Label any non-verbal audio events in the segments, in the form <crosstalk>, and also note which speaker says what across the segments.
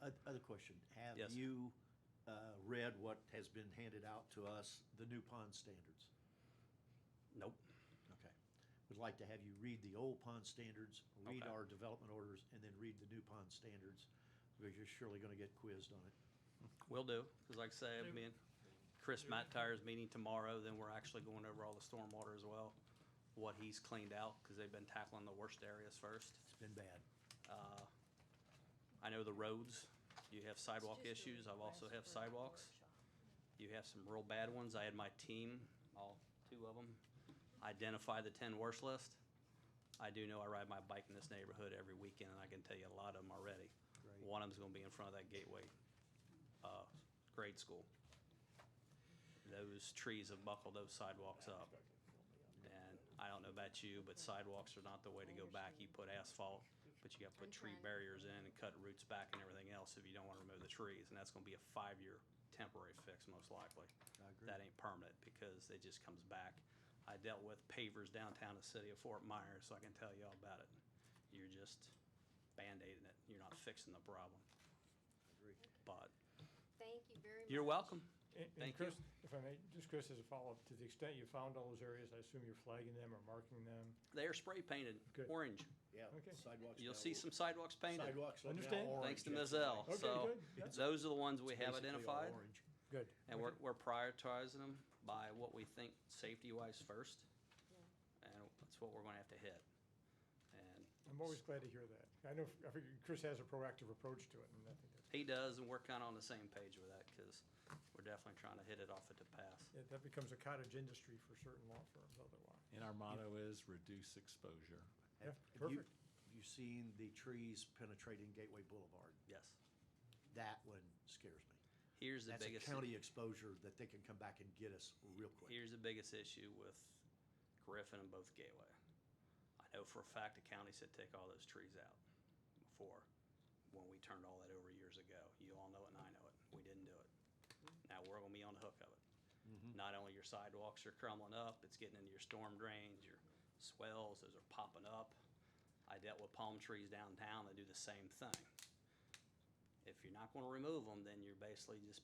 Speaker 1: Other question, have
Speaker 2: Yes.
Speaker 1: you uh, read what has been handed out to us, the new pond standards?
Speaker 2: Nope.
Speaker 1: Okay. Would like to have you read the old pond standards, read
Speaker 2: Okay.
Speaker 1: our development orders, and then read the new pond standards, because you're surely going to get quizzed on it.
Speaker 2: Will do, because like I say, me and Chris Matt Tire's meeting tomorrow, then we're actually going over all the stormwater as well, what he's cleaned out, because they've been tackling the worst areas first. Uh,
Speaker 1: It's been bad.
Speaker 2: I know the roads, you have sidewalk issues, I've also have
Speaker 3: have
Speaker 2: sidewalks. You have some real bad ones. I had my team, all two of them, identify the ten worst list. I do know I ride my bike in this neighborhood every weekend, and I can tell you a lot of them already.
Speaker 1: Great.
Speaker 2: One of them's gonna be in front of that gateway, uh, grade school. Those trees have buckled those sidewalks up. And I don't know about you, but sidewalks are not the way to go back. You put asphalt, but you gotta put tree
Speaker 3: Okay.
Speaker 2: barriers in and cut roots back and everything else if you don't wanna remove the trees. And that's gonna be a five-year temporary fix most likely.
Speaker 1: I agree.
Speaker 2: That ain't permanent because it just comes back. I dealt with pavers downtown the city of Fort Myers, so I can tell you all about it. You're just Band-Aiding it. You're not fixing the problem. But
Speaker 3: Thank you very much.
Speaker 2: you're welcome.
Speaker 4: And- And
Speaker 2: Thank
Speaker 4: Chris,
Speaker 2: you.
Speaker 4: if I may, just Chris, as a follow-up, to the extent you found all those areas, I assume you're flagging them or marking them?
Speaker 2: They are spray painted
Speaker 4: Good.
Speaker 2: orange.
Speaker 1: Yeah,
Speaker 4: Okay.
Speaker 1: sidewalks.
Speaker 2: You'll
Speaker 1: now-
Speaker 2: see some sidewalks painted.
Speaker 1: Sidewalks are now
Speaker 4: Understand.
Speaker 1: orange.
Speaker 2: Thanks to
Speaker 1: That's
Speaker 2: Mizelle.
Speaker 4: Okay,
Speaker 2: So
Speaker 4: good. Yeah.
Speaker 2: those are the ones we have
Speaker 1: basically all
Speaker 2: identified.
Speaker 1: orange.
Speaker 4: Good.
Speaker 2: And we're, we're prioritizing them by what we think safety-wise first. And that's what we're gonna have to hit. And
Speaker 4: I'm always glad to hear that. I know, I figure Chris has a proactive approach to it, and I think that's,
Speaker 2: he does, and we're kinda on the same page with that, cause we're definitely trying to hit it off at the pass.
Speaker 4: yeah, that becomes a cottage industry for certain law firms otherwise.
Speaker 5: And our motto is reduce exposure.
Speaker 4: Yeah,
Speaker 1: Have you-
Speaker 4: perfect.
Speaker 1: You seen the trees penetrating Gateway Boulevard?
Speaker 2: Yes.
Speaker 1: That one scares me.
Speaker 2: Here's the
Speaker 1: That's a
Speaker 2: biggest.
Speaker 1: county exposure that they can come back and get us real quick.
Speaker 2: Here's the biggest issue with Griffin and both Gateway. I know for a fact the county said take all those trees out before, when we turned all that over years ago. You all know it and I know it. We didn't do it. Now we're gonna be on the hook of
Speaker 1: Mm-hmm.
Speaker 2: it. Not only your sidewalks are crumbling up, it's getting into your storm drains, your swells, those are popping up. I dealt with palm trees downtown that do the same thing. If you're not gonna remove them, then you're basically just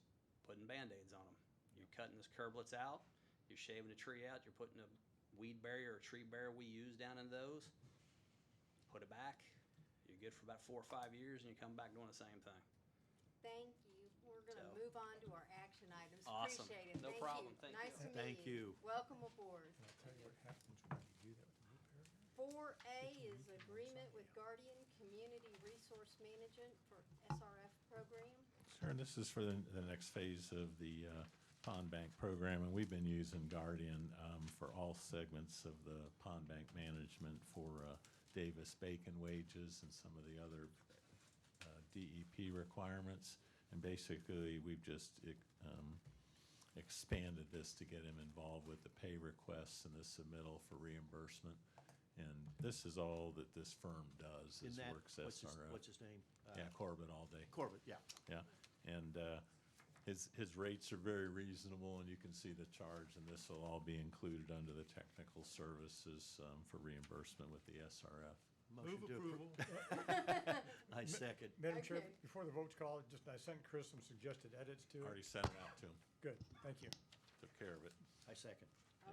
Speaker 2: putting Band-Aids on them. You're cutting those curblets out, you're shaving a tree out, you're putting a weed barrier or tree barrier we use down in those. Put it back, you're good for about four or five years and you come back doing the same thing.
Speaker 3: Thank you. We're gonna
Speaker 2: So-
Speaker 3: move on to our action items.
Speaker 2: Awesome.
Speaker 3: Appreciate it.
Speaker 2: No
Speaker 3: Thank
Speaker 2: problem.
Speaker 3: you.
Speaker 2: Thank you.
Speaker 3: Nice to meet you.
Speaker 1: Thank you.
Speaker 3: Welcome aboard.
Speaker 4: And I'll tell you what happens when you do that with the new paragraph.
Speaker 3: Four A is agreement with Guardian Community Resource Management for SRF
Speaker 2: <laughs>
Speaker 3: program.
Speaker 5: Sure, and this is for the, the next phase of the uh, pond bank program, and we've been using Guardian um, for all segments of the pond bank management for uh, Davis Bacon wages and some of the other uh, DEP requirements. And basically, we've just um, expanded this to get him involved with the pay requests and the submittal for reimbursement. And this is all that this firm does,
Speaker 1: In
Speaker 5: is
Speaker 1: that,
Speaker 5: works SRO.
Speaker 1: what's his, what's his name? Uh,
Speaker 5: Yeah, Corbett all day.
Speaker 1: Corbett, yeah.
Speaker 5: Yeah, and uh, his, his rates are very reasonable, and you can see the charge, and this will all be included under the technical services um, for reimbursement with the SRF.
Speaker 1: Motion to
Speaker 4: <laughs>
Speaker 1: approve. <laughs> I second.
Speaker 4: Madam Chair,
Speaker 3: Okay.
Speaker 4: before the vote's called, just, I sent Chris some suggested edits to
Speaker 5: Already
Speaker 4: it.
Speaker 5: sent it out to him,
Speaker 4: Good, thank you.
Speaker 5: took care of it.
Speaker 1: I second.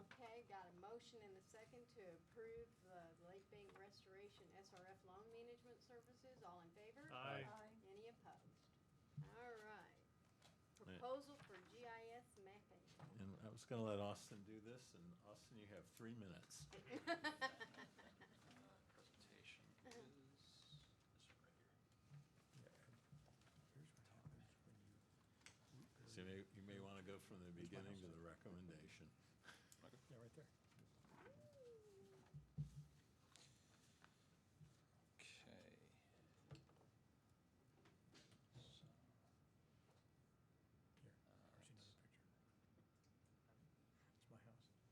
Speaker 3: Okay, got a motion and a second to approve the Lake Bank Restoration SRF Loan Management Services. All in favor?
Speaker 4: Aye.
Speaker 3: Any opposed? All right. Proposal for GIS mapping.
Speaker 5: And I was gonna let Austin do this, and Austin, you have three minutes.
Speaker 6: Uh, presentation is this one right here.
Speaker 4: Here's what happens when you
Speaker 5: So you may, you may wanna go from the beginning to the recommendation.
Speaker 4: Yeah, right there.
Speaker 6: Okay.
Speaker 4: Here,
Speaker 6: So, All
Speaker 4: here's
Speaker 6: right.
Speaker 4: another picture.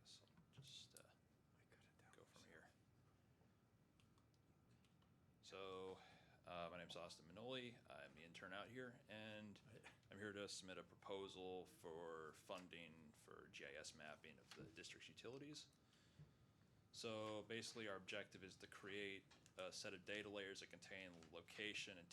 Speaker 4: It's my house.
Speaker 6: guess I'll just uh, go from here. So, uh, my name's Austin Manoli. I'm the intern out here, and I'm here to submit a proposal for funding for GIS mapping of the district's utilities. So basically, our objective is to create a set of data layers that contain location and